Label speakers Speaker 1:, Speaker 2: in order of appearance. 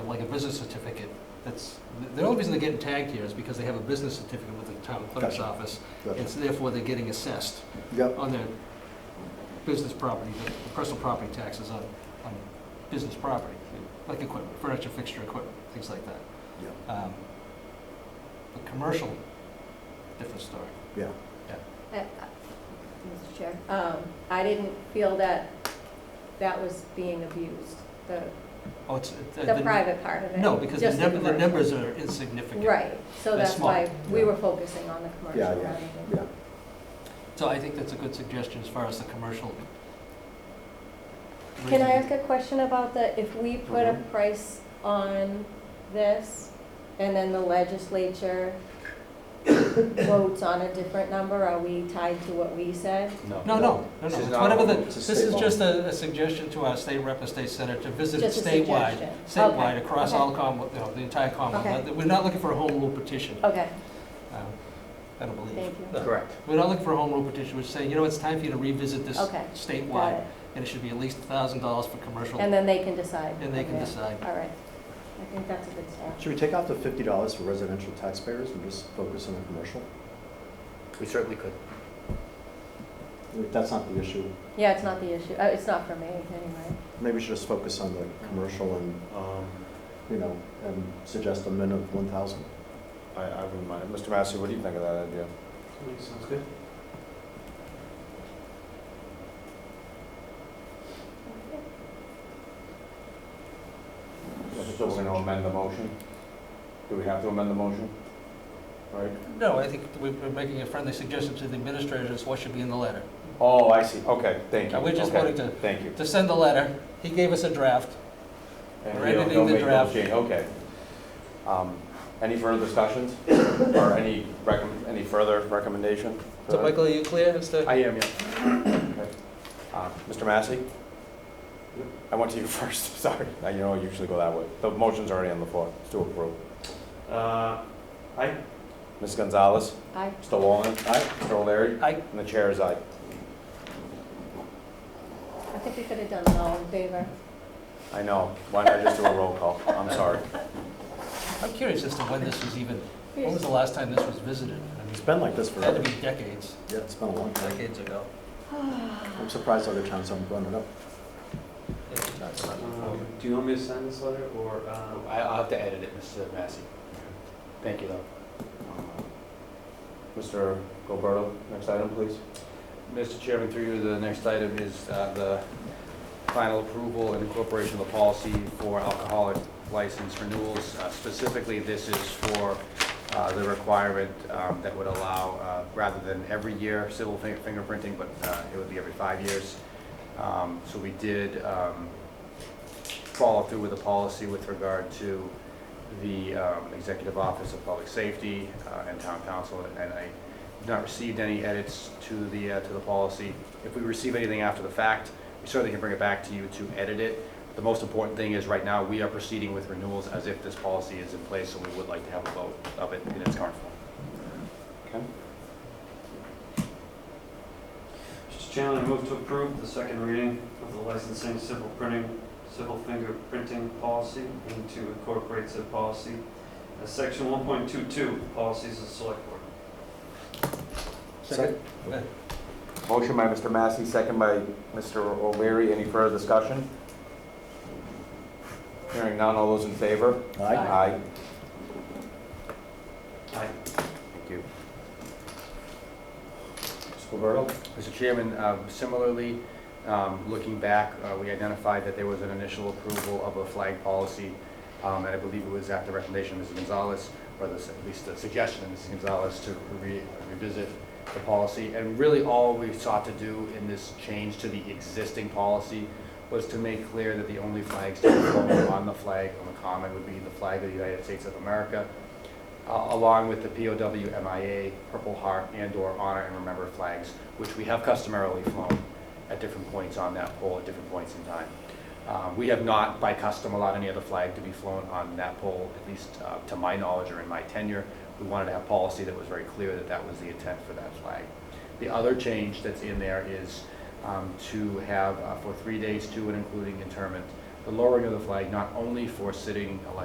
Speaker 1: business certificate, that's, the only reason they're getting tagged here is because they have a business certificate with the town clerk's
Speaker 2: Gotcha.
Speaker 1: office, and
Speaker 2: Gotcha.
Speaker 1: so therefore they're getting assessed
Speaker 2: Yep,
Speaker 1: on their business property, their personal property taxes on, on business property, like equipment, furniture, fixture, equipment, things like that.
Speaker 2: yep,
Speaker 1: Um, But commercial, different story.
Speaker 2: yeah.
Speaker 3: Uh, uh, Mr. Chair, um, I didn't feel that that was being abused, the,
Speaker 1: Oh, it's. uh,
Speaker 3: the private part of it.
Speaker 1: No, because the
Speaker 3: just
Speaker 1: number, the
Speaker 3: commercial.
Speaker 1: numbers are insignificant.
Speaker 3: Right, so
Speaker 1: That's
Speaker 3: that's why
Speaker 1: small.
Speaker 3: we were focusing on the commercial
Speaker 2: Yeah,
Speaker 3: rather
Speaker 2: yeah,
Speaker 3: than.
Speaker 2: yeah.
Speaker 1: So I think that's a good suggestion as far as the commercial.
Speaker 3: Can I ask a question about the, if we put
Speaker 1: Uh-huh.
Speaker 3: a price on this and then the legislature votes on a different number, are we tied to what we said?
Speaker 1: No, no, no, no,
Speaker 2: This is
Speaker 1: it's
Speaker 2: not-
Speaker 1: whatever the,
Speaker 2: it's a
Speaker 1: this
Speaker 2: state
Speaker 1: is
Speaker 2: law.
Speaker 1: just a, a suggestion to our state rep and state senator to visit
Speaker 3: Just a
Speaker 1: statewide,
Speaker 3: suggestion.
Speaker 1: statewide,
Speaker 3: Okay,
Speaker 1: across
Speaker 3: okay.
Speaker 1: all Commonwealth, you know, the entire Commonwealth. We're not looking for a home rule petition,
Speaker 3: Okay,
Speaker 1: um, I don't believe.
Speaker 3: Oh. Thank you.
Speaker 1: No.
Speaker 4: Correct.
Speaker 1: We're not looking for a home rule petition, we're saying, you know, it's time for you to revisit this
Speaker 3: Okay, got
Speaker 1: statewide,
Speaker 3: it.
Speaker 1: and it should be at least a thousand dollars for commercial,
Speaker 3: And then they can decide.
Speaker 1: and they can
Speaker 3: Okay.
Speaker 1: decide.
Speaker 3: All right, I think that's a good start.
Speaker 2: Should we take off the fifty dollars for residential taxpayers and just focus on the commercial?
Speaker 4: We certainly could.
Speaker 2: If That's not the issue.
Speaker 3: Yeah, it's not the issue, uh, it's not for me, anyway.
Speaker 2: Maybe we should just focus on the commercial and,
Speaker 5: Um,
Speaker 2: you know, and suggest a min of one thousand.
Speaker 5: I, I wouldn't mind. Mr. Massey, what do you think of that idea?
Speaker 6: Sounds good.
Speaker 5: So we're gonna amend the motion? Do we have to amend the motion? Right?
Speaker 1: No, I think we- we're making a friendly suggestion to the administrators, what should be in the letter.
Speaker 5: Oh, I see. Okay, thank you.
Speaker 1: Now, we're just
Speaker 5: Okay,
Speaker 1: voting to-
Speaker 5: Thank you.
Speaker 1: To send the letter, he gave us a draft,
Speaker 5: And
Speaker 1: we're
Speaker 5: we don't-
Speaker 1: editing
Speaker 5: don't
Speaker 1: the
Speaker 5: make no
Speaker 1: draft.
Speaker 5: change. Okay. Um, Any further discussions or any recomm, any further recommendation? for
Speaker 1: So
Speaker 5: that?
Speaker 1: Michael, are you clear as to?
Speaker 5: I am, yeah. Okay. Uh, Mr. Massey? I went to you first, sorry. I- You know, I usually go that way. The motion's already on the floor. It's to approve.
Speaker 6: Uh, I,
Speaker 5: Ms. Gonzalez?
Speaker 3: I,
Speaker 5: Mr. Wallin? Aye. Mr. O'Leary?
Speaker 1: Aye.
Speaker 5: And the chair is aye.
Speaker 3: I think we could have done it all in favor.
Speaker 5: I know. Why not just do a roll call? I'm sorry.
Speaker 1: I'm curious as to when this was even, when was the
Speaker 3: Oh,
Speaker 1: last time this was visited? I mean,
Speaker 2: It's been like this
Speaker 1: it had to
Speaker 2: forever.
Speaker 1: be decades,
Speaker 2: Yeah, it's been a long time.
Speaker 1: decades ago.
Speaker 2: I'm surprised other towns haven't brought it up.
Speaker 6: um, do you want me to sign this letter or, um,
Speaker 4: I- I'll have to edit it, Mr. Massey. Thank you, though.
Speaker 5: Mr. Gilberto, next item, please.
Speaker 4: Mr. Chairman, through you, the next item is uh, the final approval and incorporation of the policy for alcoholic license renewals. Uh, Specifically, this is for uh, the requirement um, that would allow, uh, rather than every year civil fin- fingerprinting, but uh, it would be every five years. Um, So we did um, follow through with a policy with regard to the um, Executive Office of Public Safety uh, and Town Council, and I not received any edits to the, uh, to the policy. If we receive anything after the fact, we certainly can bring it back to you to edit it. The most important thing is, right now, we are proceeding with renewals as if this policy is in place, so we would like to have a vote of it in its current form.
Speaker 5: Okay.
Speaker 6: Mr. Chairman, I move to approve the second reading of the licensing civil printing, civil fingerprinting policy and to incorporate said policy as section one point two two, policies of the select board.
Speaker 2: Second.
Speaker 5: Motion by Mr. Massey, second by Mr. O'Leary. Any further discussion? Hearing none, all those in favor?
Speaker 2: Aye.
Speaker 5: Aye.
Speaker 6: Aye.
Speaker 5: Thank you. Mr. Gilberto?
Speaker 4: Mr. Chairman, um, similarly, um, looking back, uh, we identified that there was an initial approval of a flag policy, um, and I believe it was at the recommendation of Mrs. Gonzalez, or the- at least the suggestion of Mrs. Gonzalez to re- revisit the policy. And really, all we sought to do in this change to the existing policy was to make clear that the only flags to be flown on the flag on the common would be the flag of the United States of America, uh, along with the POW, MIA, Purple Heart, and/or Honor and Remember flags, which we have customarily flown at different points on that pole at different points in time. Uh, We have not, by custom, allowed any other flag to be flown on that pole, at least uh, to my knowledge or in my tenure. We wanted to have policy that was very clear that that was the intent for that flag. The other change that's in there is um, to have, uh, for three days to and including interment, the lowering of the flag not only for sitting elected